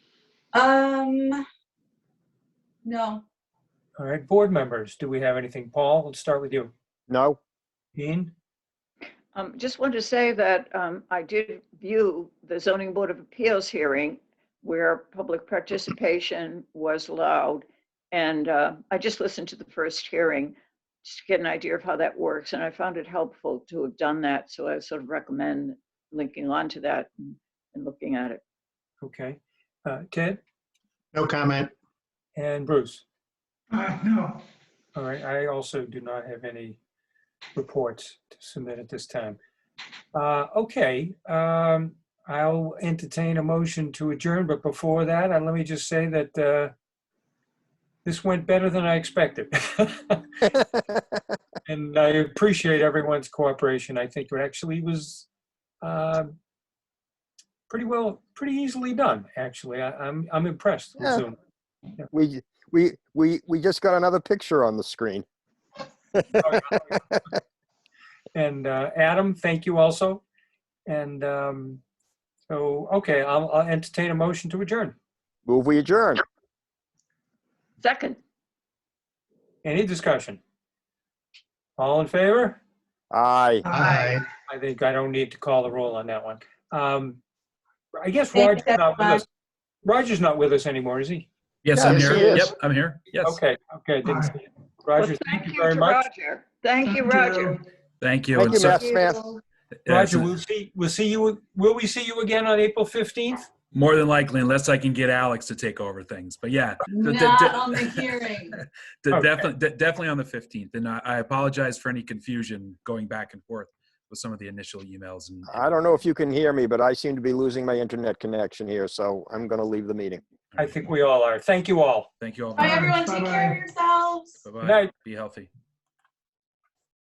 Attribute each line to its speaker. Speaker 1: Um, no,
Speaker 2: All right, board members, do we have anything? Paul, let's start with you.
Speaker 3: No?
Speaker 2: Ian?
Speaker 4: Um, Just wanted to say that um, I did view the zoning board of appeals hearing where public participation was allowed. And uh, I just listened to the first hearing, just to get an idea of how that works. And I found it helpful to have done that. So I sort of recommend linking on to that and and looking at it.
Speaker 2: Okay. Uh, Ted
Speaker 3: No comment.
Speaker 2: and Bruce?
Speaker 5: Uh, no,
Speaker 2: All right, I also do not have any reports to submit at this time. Uh, Okay, um, I'll entertain a motion to adjourn, but before that, uh, let me just say that uh, this went better than I expected. And I appreciate everyone's cooperation. I think it actually was um, pretty well, pretty easily done, actually. I- I'm I'm impressed with
Speaker 3: Yeah.
Speaker 2: Zoom.
Speaker 3: We, we, we, we just got another picture on the screen.
Speaker 2: And uh, Adam, thank you also. And um, so, okay, I'll I'll entertain a motion to adjourn.
Speaker 3: Move, we adjourn.
Speaker 4: Second,
Speaker 2: Any discussion? All in favor?
Speaker 3: Aye.
Speaker 5: aye.
Speaker 2: I think I don't need to call the roll on that one. Um, I guess
Speaker 1: Thank you,
Speaker 2: Roger's not with
Speaker 1: everyone.
Speaker 2: us. Roger's not not with us anymore, is he?
Speaker 6: Yes, I'm
Speaker 3: Yes,
Speaker 6: here.
Speaker 3: he is.
Speaker 6: Yep, I'm here. Yes.
Speaker 2: Okay, okay, didn't see it.
Speaker 4: well,
Speaker 2: Roger,
Speaker 4: thank you
Speaker 2: very
Speaker 4: to
Speaker 2: much.
Speaker 4: Roger. Thank you, Roger.
Speaker 6: Thank you.
Speaker 3: Thank
Speaker 6: And
Speaker 3: you,
Speaker 6: so-
Speaker 3: Matt Smith.
Speaker 6: yeah,
Speaker 2: Roger,
Speaker 6: it's-
Speaker 2: we'll see, we'll see you, will we see you again on April 15th?
Speaker 6: More than likely, unless I can get Alex to take over things. But yeah, d- d-
Speaker 1: not on the hearing.
Speaker 6: de-
Speaker 2: Okay.
Speaker 6: definitely, de- definitely on the 15th. And I, I apologize for any confusion going back and forth with some of the initial emails. And
Speaker 3: I don't know if you can hear me, but I seem to be losing my internet connection here, so I'm going to leave the meeting.
Speaker 2: I think we all are. Thank you all.
Speaker 6: Thank you all.
Speaker 1: Bye,
Speaker 6: very much.
Speaker 1: everyone. Take care of
Speaker 5: Bye-bye.
Speaker 1: yourselves.
Speaker 2: Good
Speaker 6: Bye-bye.
Speaker 2: night.
Speaker 6: Be healthy.